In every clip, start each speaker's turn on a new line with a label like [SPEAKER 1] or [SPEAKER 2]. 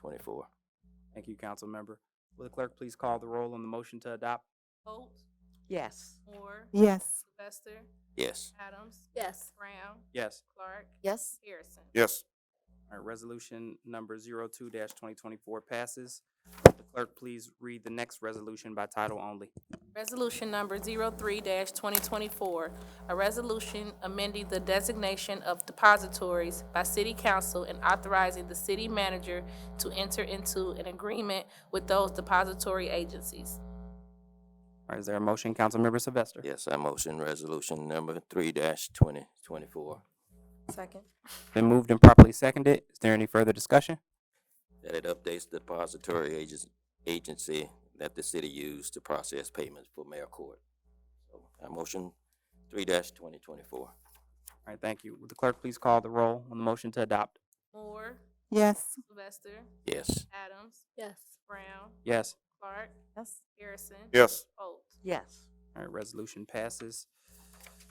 [SPEAKER 1] twenty-four.
[SPEAKER 2] Thank you, council member. Will the clerk please call the roll on the motion to adopt?
[SPEAKER 3] Holt,
[SPEAKER 4] Yes.
[SPEAKER 3] Moore,
[SPEAKER 5] Yes.
[SPEAKER 3] Sylvester,
[SPEAKER 1] Yes.
[SPEAKER 3] Adams,
[SPEAKER 6] Yes.
[SPEAKER 3] Brown,
[SPEAKER 2] Yes.
[SPEAKER 3] Clark,
[SPEAKER 6] Yes.
[SPEAKER 3] Harrison.
[SPEAKER 7] Yes.
[SPEAKER 2] All right, resolution number zero-two dash twenty-twenty-four passes. Will the clerk please read the next resolution by title only?
[SPEAKER 3] Resolution number 03-2024, a resolution amending the designation of depositories by city council and authorizing the city manager to enter into an agreement with those depository agencies.
[SPEAKER 2] All right, is there a motion, council member Sylvester?
[SPEAKER 1] Yes, I motion resolution number three dash twenty twenty-four,
[SPEAKER 6] Second.
[SPEAKER 2] Been moved and properly seconded. Is there any further discussion?
[SPEAKER 1] that it updates the depository agents, agency that the city used to process payments for mayor court. So I motion three dash twenty twenty-four.
[SPEAKER 2] All right, thank you. Will the clerk please call the roll on the motion to adopt?
[SPEAKER 3] Moore,
[SPEAKER 5] Yes.
[SPEAKER 3] Sylvester,
[SPEAKER 1] Yes.
[SPEAKER 3] Adams,
[SPEAKER 6] Yes.
[SPEAKER 3] Brown,
[SPEAKER 2] Yes.
[SPEAKER 3] Clark,
[SPEAKER 4] Yes.
[SPEAKER 3] Harrison.
[SPEAKER 7] Yes.
[SPEAKER 3] Holt.
[SPEAKER 4] Yes.
[SPEAKER 2] All right, resolution passes.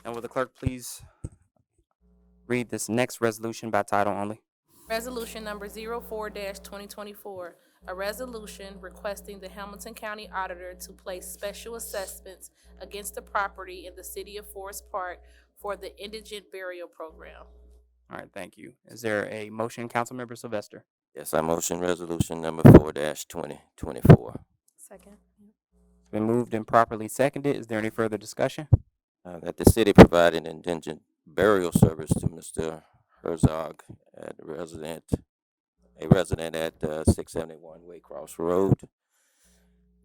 [SPEAKER 2] And will the clerk please read this next resolution by title only?
[SPEAKER 3] Resolution number 04-2024, a resolution requesting the Hamilton County Auditor to place special assessments against the property in the city of Forest Park for the indigent burial program.
[SPEAKER 2] All right, thank you. Is there a motion, Councilmember Sylvester?
[SPEAKER 1] Yes, I motion resolution number four dash twenty twenty-four.
[SPEAKER 6] Second.
[SPEAKER 2] It's been moved and properly seconded. Is there any further discussion?
[SPEAKER 1] Uh, that the city provided indigent burial service to Mr. Herzog at resident, a resident at, uh, six seventy-one Waycross Road.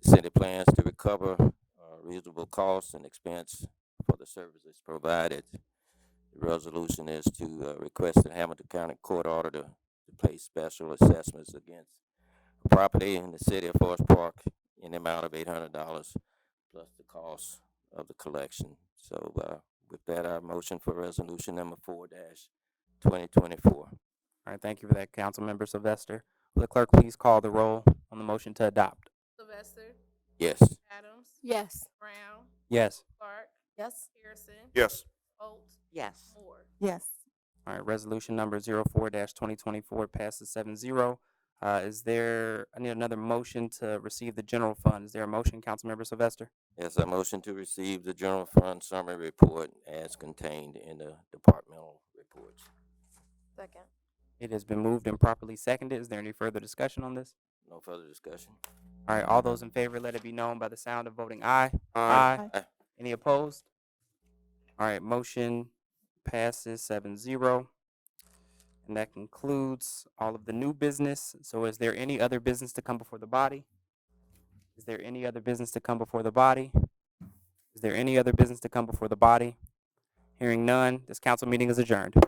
[SPEAKER 1] The City plans to recover, uh, reasonable costs and expense for the services provided. The resolution is to, uh, request the Hamilton County Court Auditor to place special assessments against property in the city of Forest Park in the amount of eight hundred dollars plus the cost of the collection. So, uh, with that, I motion for resolution number four dash twenty twenty-four.
[SPEAKER 2] All right, thank you for that, Councilmember Sylvester. Will the clerk please call the roll on the motion to adopt?
[SPEAKER 3] Sylvester,
[SPEAKER 1] Yes.
[SPEAKER 3] Adams,
[SPEAKER 6] Yes.
[SPEAKER 3] Brown,
[SPEAKER 2] Yes.
[SPEAKER 3] Clark,
[SPEAKER 6] Yes.
[SPEAKER 3] Harrison,
[SPEAKER 7] Yes.
[SPEAKER 3] Holt,
[SPEAKER 4] Yes.
[SPEAKER 3] Moore.
[SPEAKER 5] Yes.
[SPEAKER 2] All right, resolution number zero four dash twenty twenty-four passes seven zero. Uh, is there, I need another motion to receive the general fund. Is there a motion, Councilmember Sylvester?
[SPEAKER 1] Yes, I motion to receive the general fund summary report as contained in the departmental reports.
[SPEAKER 6] Second.
[SPEAKER 2] It has been moved and properly seconded. Is there any further discussion on this?
[SPEAKER 1] No further discussion?
[SPEAKER 2] All right, all those in favor, let it be known by the sound of voting aye.
[SPEAKER 1] Aye.
[SPEAKER 2] Any opposed? All right, motion passes seven zero. And that concludes all of the new business. So is there any other business to come before the body? Is there any other business to come before the body? Is there any other business to come before the body? Hearing none, this council meeting is adjourned.